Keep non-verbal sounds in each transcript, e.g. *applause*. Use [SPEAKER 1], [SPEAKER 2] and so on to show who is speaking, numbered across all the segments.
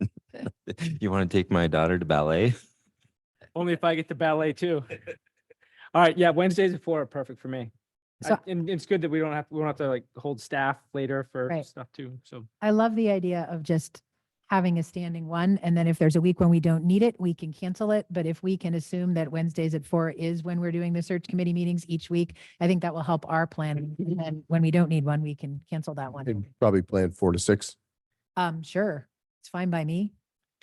[SPEAKER 1] *laughs* You want to take my daughter to ballet?
[SPEAKER 2] Only if I get to ballet too. All right, yeah, Wednesdays at four are perfect for me. I-
[SPEAKER 3] So-
[SPEAKER 2] And it's good that we don't have, we don't have to like hold staff later for
[SPEAKER 3] Right.
[SPEAKER 2] stuff too, so.
[SPEAKER 3] I love the idea of just having a standing one, and then if there's a week when we don't need it, we can cancel it. But if we can assume that Wednesdays at four is when we're doing the search committee meetings each week, I think that will help our plan. And then when we don't need one, we can cancel that
[SPEAKER 4] They'd
[SPEAKER 3] one.
[SPEAKER 4] probably plan four to six,
[SPEAKER 3] Um, sure, it's fine by me.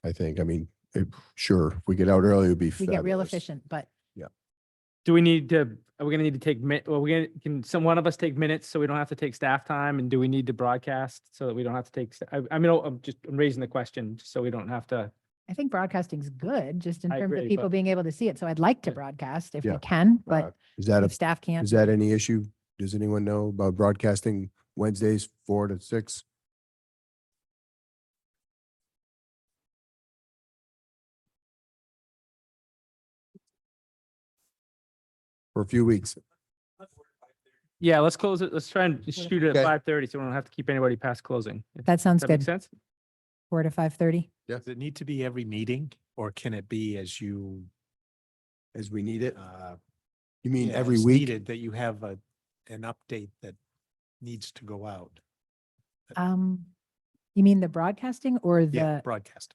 [SPEAKER 4] I think. I mean, eh, sure, if we get out early, it'd be
[SPEAKER 3] We get real
[SPEAKER 4] fabulous.
[SPEAKER 3] efficient, but
[SPEAKER 2] Do we need to, are we gonna need to take mi, well, we gonna, can some, one of us take minutes so we don't have to take staff time? And do we need to broadcast so that we don't have to take, sta- I, I mean, oh, I'm just I'm raising the question, just so we don't have to.
[SPEAKER 3] I think broadcasting's good, just in
[SPEAKER 2] I
[SPEAKER 3] terms of
[SPEAKER 2] agree,
[SPEAKER 3] people
[SPEAKER 2] but-
[SPEAKER 3] being able to see it. So I'd like to
[SPEAKER 2] Yeah.
[SPEAKER 3] broadcast if
[SPEAKER 4] Yeah.
[SPEAKER 3] we can,
[SPEAKER 4] Uh,
[SPEAKER 3] but
[SPEAKER 4] Is that, a-
[SPEAKER 3] if staff can't.
[SPEAKER 4] is that any issue? Does anyone know about broadcasting Wednesdays, four to six? For a few weeks.
[SPEAKER 2] Yeah, let's close it, let's try and shoot it
[SPEAKER 4] Okay.
[SPEAKER 2] at five thirty, so we don't have to keep anybody past closing. If-
[SPEAKER 3] That sounds
[SPEAKER 2] Does that make
[SPEAKER 3] good,
[SPEAKER 2] sense?
[SPEAKER 3] four to five thirty.
[SPEAKER 5] Does it need to be every meeting or can it be as you?
[SPEAKER 4] As we need it.
[SPEAKER 5] uh,
[SPEAKER 4] You mean
[SPEAKER 5] yeah,
[SPEAKER 4] every
[SPEAKER 5] as
[SPEAKER 4] week?
[SPEAKER 5] needed, That you have a, an update that needs to go out.
[SPEAKER 3] Um, you mean the broadcasting or
[SPEAKER 5] Yeah,
[SPEAKER 3] the?
[SPEAKER 5] broadcast.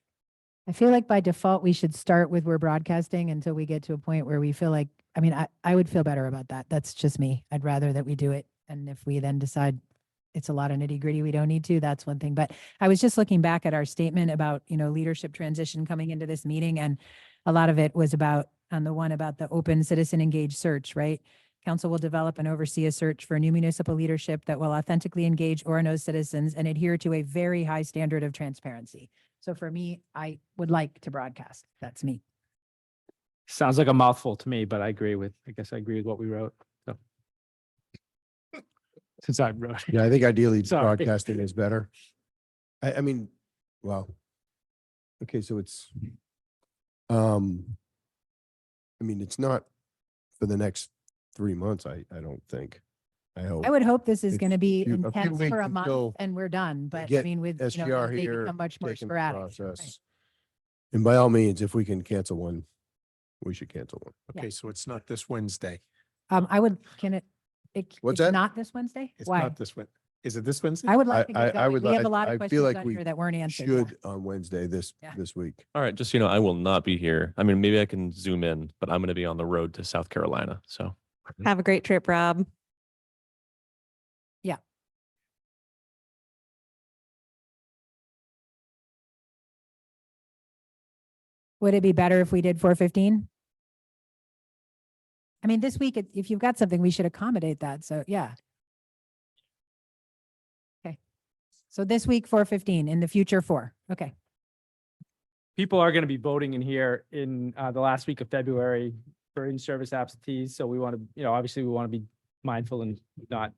[SPEAKER 3] I feel like by default, we should start with we're broadcasting until we get to a point where we feel like, I mean, I, I would feel better about that. That's just me. I'd rather that we do it. And if we then decide it's a lot of nitty gritty, we don't need to, that's one thing. But I was just looking back at our statement about, you know, leadership transition coming into this meeting. And a lot of it was about, on the one about the open citizen engaged search, right? Council will develop and oversee a search for new municipal leadership that will authentically engage Orano's citizens and adhere to a very high standard of transparency. So for me, I would like to broadcast. That's me.
[SPEAKER 2] Sounds like a mouthful to me, but I agree with, I guess I agree with what we wrote, so. Since I wrote. it.
[SPEAKER 4] Yeah, I think ideally
[SPEAKER 2] Sorry.
[SPEAKER 4] broadcasting is better. I, I mean, well, okay, so it's, um, I mean, it's not for the next three months, I, I don't think. I hope.
[SPEAKER 3] I would hope this is
[SPEAKER 4] If
[SPEAKER 3] going to be
[SPEAKER 4] you- a few
[SPEAKER 3] intense for a
[SPEAKER 4] weeks until
[SPEAKER 3] month and we're done, but I
[SPEAKER 4] get
[SPEAKER 3] mean, with, you know,
[SPEAKER 4] SGR
[SPEAKER 3] as they
[SPEAKER 4] here.
[SPEAKER 3] become much more
[SPEAKER 4] taken the
[SPEAKER 3] sporadic. Right.
[SPEAKER 4] process. And by all means, if we can cancel one, we should cancel one.
[SPEAKER 3] Yeah.
[SPEAKER 5] Okay, so it's not this Wednesday.
[SPEAKER 3] Um, I would, can it, it,
[SPEAKER 4] What's
[SPEAKER 3] it's
[SPEAKER 4] that?
[SPEAKER 3] not this Wednesday?
[SPEAKER 5] It's
[SPEAKER 3] Why?
[SPEAKER 5] not this Wed, is it this Wednesday?
[SPEAKER 3] I would
[SPEAKER 4] I,
[SPEAKER 3] like to
[SPEAKER 4] I,
[SPEAKER 3] get
[SPEAKER 4] I
[SPEAKER 3] going.
[SPEAKER 4] would,
[SPEAKER 3] We have
[SPEAKER 4] like.
[SPEAKER 3] a lot
[SPEAKER 4] I
[SPEAKER 3] of
[SPEAKER 4] feel
[SPEAKER 3] questions
[SPEAKER 4] like
[SPEAKER 3] on
[SPEAKER 4] we
[SPEAKER 3] here that weren't answered. yeah.
[SPEAKER 4] should on Wednesday this,
[SPEAKER 3] Yeah.
[SPEAKER 4] this week.
[SPEAKER 6] All right, just so you know, I will not be here. I mean, maybe I can zoom in, but I'm going to be on the road to South Carolina. So
[SPEAKER 7] Have a great trip, Rob.
[SPEAKER 3] Would it be better if we did four fifteen? I mean, this week, it- if you've got something, we should accommodate that. So, yeah. Okay. So this week, four fifteen, in the future, four. Okay.
[SPEAKER 2] people are going to be voting in here in uh, the last week of February for in-service absentees. So we want to, you know, obviously we want to be mindful and not.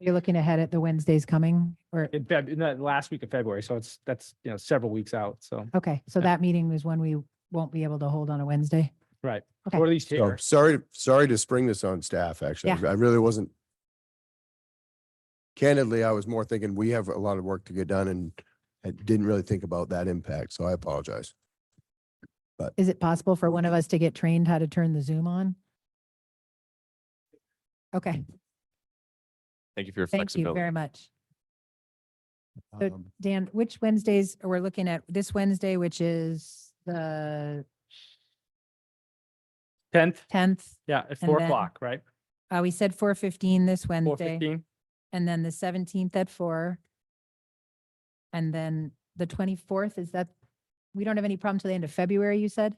[SPEAKER 3] You're looking ahead at the Wednesdays coming or,
[SPEAKER 2] In Feb, in the last week of February, so it's, that's, you know, several weeks out, so,
[SPEAKER 3] okay, so
[SPEAKER 2] Yeah.
[SPEAKER 3] that meeting is one we won't be able to hold on a Wednesday.
[SPEAKER 2] right.
[SPEAKER 3] Okay.
[SPEAKER 2] Or at least
[SPEAKER 4] So
[SPEAKER 2] here.
[SPEAKER 4] Oh, sorry, sorry to spring this on staff, actually.
[SPEAKER 3] Yeah.
[SPEAKER 4] I really wasn't. Candidly, I was more thinking we have a lot of work to get done and I didn't really think about that impact, so I apologize.
[SPEAKER 3] Is it possible for one of us to get trained how to turn the Zoom on? Okay,
[SPEAKER 6] thank you for your
[SPEAKER 3] thank you
[SPEAKER 6] flexibility.
[SPEAKER 3] very much. So-
[SPEAKER 4] Um,
[SPEAKER 3] Dan, which Wednesdays are we looking at? This Wednesday, which is the
[SPEAKER 2] Tenth,
[SPEAKER 3] tenth,
[SPEAKER 2] yeah, at
[SPEAKER 3] And
[SPEAKER 2] four
[SPEAKER 3] then
[SPEAKER 2] o'clock, right?
[SPEAKER 3] uh, we said four fifteen this
[SPEAKER 2] Four
[SPEAKER 3] Wednesday.
[SPEAKER 2] fifteen.
[SPEAKER 3] And then the seventeenth at four. And then the twenty-fourth, is that, we don't have any problem till the end of February, you said?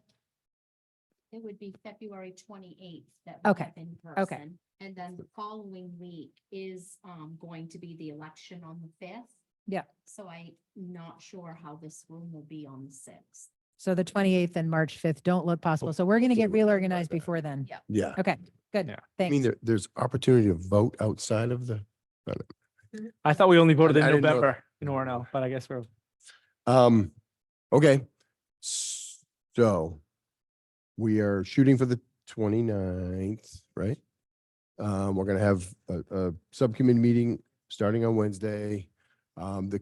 [SPEAKER 8] It would be February twenty-eighth that. we
[SPEAKER 3] Okay,
[SPEAKER 8] have In
[SPEAKER 3] okay.
[SPEAKER 8] person, and then the following week is, um, going to be the election on the fifth.
[SPEAKER 3] Yeah.
[SPEAKER 8] So I'm not sure how this room will be on the sixth.
[SPEAKER 3] So the twenty-eighth and March fifth don't look possible. So we're going to
[SPEAKER 4] so
[SPEAKER 3] get
[SPEAKER 4] we
[SPEAKER 3] real
[SPEAKER 4] can try
[SPEAKER 3] organized
[SPEAKER 4] that.
[SPEAKER 3] before then.
[SPEAKER 8] Yeah.
[SPEAKER 4] Yeah,
[SPEAKER 3] Okay,
[SPEAKER 2] Yeah.
[SPEAKER 3] good.
[SPEAKER 4] I mean,
[SPEAKER 3] Thanks.
[SPEAKER 4] there, there's opportunity to vote outside of the,
[SPEAKER 2] I thought we only voted in
[SPEAKER 4] I didn't know-
[SPEAKER 2] November in Orno, but I guess we're,
[SPEAKER 4] um, okay. So we are shooting for the 29th, right? Um, we're gonna have a, a subcommittee meeting starting on Wednesday. Um, the